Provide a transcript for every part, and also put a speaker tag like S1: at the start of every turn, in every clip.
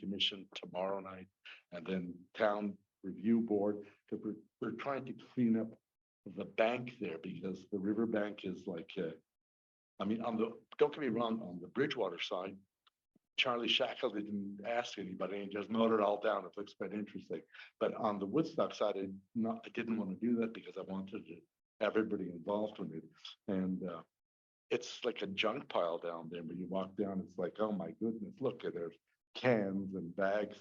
S1: commission tomorrow night and then town review board, because we're, we're trying to clean up the bank there because the river bank is like, uh, I mean, on the, don't get me wrong, on the Bridgewater side, Charlie Shackle didn't ask anybody and just mowed it all down. It looks quite interesting. But on the Woodstock side, I not, I didn't want to do that because I wanted to have everybody involved in it. And, uh, it's like a junk pile down there. When you walk down, it's like, oh my goodness, look at there's cans and bags.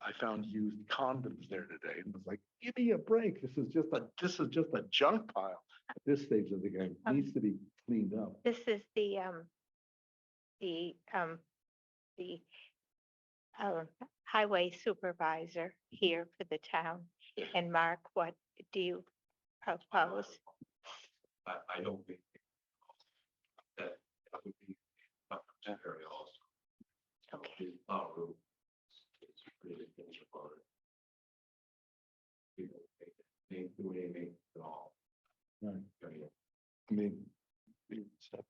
S1: I found used condoms there today and was like, give me a break. This is just a, this is just a junk pile. At This stage of the game It
S2: Um,
S1: needs to be cleaned up.
S2: This is the, um, the, um, the, uh, highway supervisor here for the town. And Mark, what do you propose?
S3: I, I don't think. That that would be not temporary also.
S2: Okay.
S3: It's not real. It's really things about it. You know, they, they do anything at all.
S1: Right.
S3: I mean,
S1: I mean. it's up.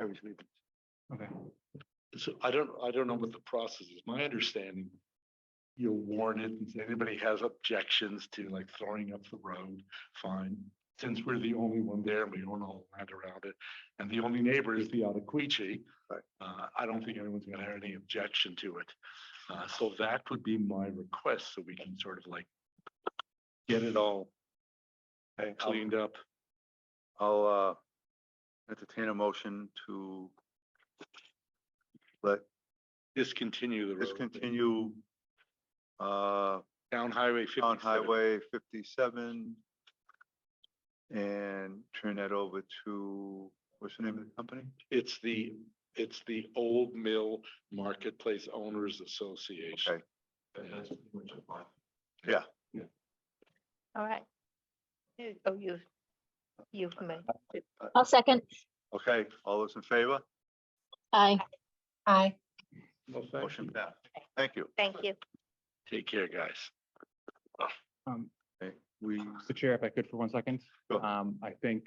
S1: Everything.
S3: Okay.
S1: So I don't, I don't know what the process is. My understanding, you'll warn it and say anybody has objections to like throwing up the road, fine. Since we're the only one there, we own all the land around it, and the only neighbor is the Otakuichi.
S3: Right.
S1: Uh, I don't think anyone's gonna have any objection to it. Uh, so that would be my request, so we can sort of like get it all
S4: Okay, I'll-
S1: cleaned up.
S4: I'll uh entertain a motion to let
S1: Discontinue the road.
S4: discontinue uh
S1: Down Highway
S4: on
S1: fifty-seven.
S4: Highway fifty-seven and turn that over to, what's the name of the company?
S1: It's the, it's the Old Mill Marketplace Owners Association.
S4: Okay,
S3: But that's pretty much a lot.
S2: All right. You- Oh, you, you've made,
S5: I'll second.
S4: okay, all those in favor?
S5: Aye. Aye.
S1: Well, thank
S4: Motion
S1: you.
S4: passed. Thank you.
S2: thank you.
S1: Take care, guys.
S6: Um,
S4: Okay, We,
S6: Mr. Chair, if I could for one second,
S4: Go.
S6: um, I think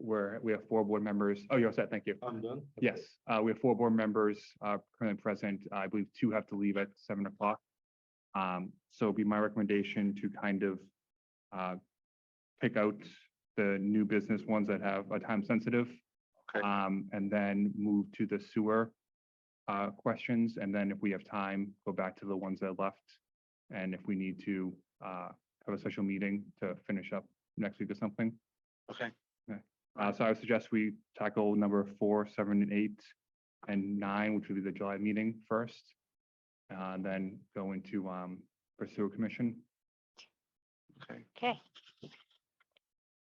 S6: we're, we have four board members. Oh, you're all set. Thank you.
S1: I'm done.
S6: Yes, uh, we have four board members, uh, currently present. I believe two have to leave at seven o'clock. Um, so it'd be my recommendation to kind of, uh, pick out the new business ones that have a time sensitive.
S4: Okay.
S6: Um, and then move to the sewer, uh, questions. And then if we have time, go back to the ones that left. And if we need to, uh, have a special meeting to finish up next week or something.
S4: okay,
S6: Uh, so I would suggest we tackle number four, seven, and eight, and nine, which would be the July meeting first. Uh, and then go into, um, pursue a commission.
S4: okay,
S2: Okay.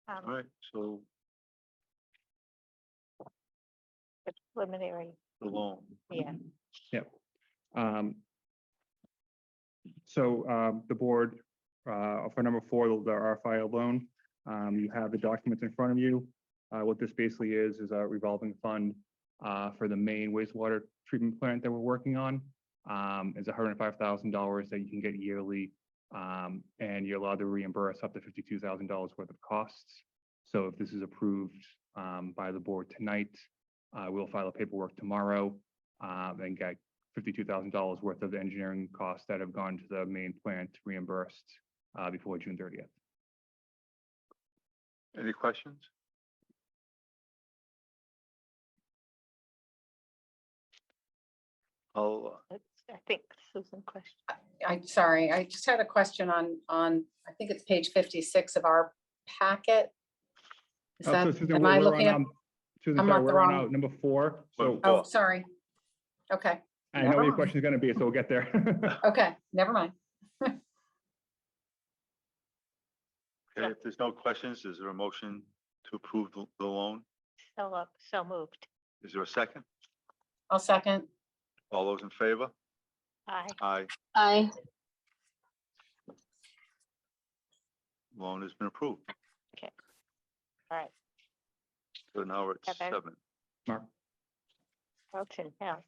S2: Um,
S4: all right, so
S2: the Preliminary,
S4: the loan.
S2: yeah.
S6: Um, so, um, the board, uh, for number four, the RFI loan, um, you have the documents in front of you. Uh, what this basically is, is a revolving fund, uh, for the main wastewater treatment plant that we're working on. Um, is hundred and five thousand dollars that you can get yearly. Um, and you're allowed to reimburse up to fifty-two thousand dollars worth of costs. So if this is approved, um, by the board tonight, uh, we'll file the paperwork tomorrow, um, and get fifty-two thousand dollars worth of engineering costs that have gone to the main plant reimbursed uh, before June thirtieth.
S4: Any questions? I'll, uh,
S2: That's, I think Susan question.
S7: I, sorry, I just had a question on, on, I think it's page fifty-six of our packet.
S6: Oh,
S7: Is that, am I looking at,
S6: Susan,
S7: I'm
S6: um, sorry,
S7: not the
S6: we're on
S7: wrong-
S6: uh, number four, so
S4: Number
S7: oh,
S4: four.
S7: sorry. Okay,
S6: I know what your
S7: Never.
S6: question is gonna be, so we'll get there.
S7: okay, never mind.
S4: okay, if there's no questions, is there a motion to approve the the loan?
S2: So, uh, so moved.
S4: Is there a second?
S7: I'll second.
S4: All those in favor?
S2: Aye.
S4: Aye,
S5: Aye.
S4: loan has been approved.
S2: All right.
S4: So now we're at
S2: Seven.
S4: seven.
S6: Mark?
S2: Carlton, now.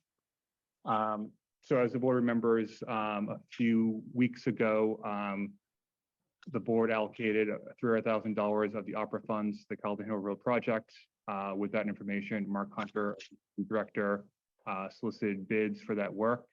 S6: Um, so as the board remembers, um, a few weeks ago, um, the board allocated three hundred thousand dollars of the opera funds, to the Calden Hill Road project. Uh, with that information, Mark Hunter, the director, uh, solicited bids for that work.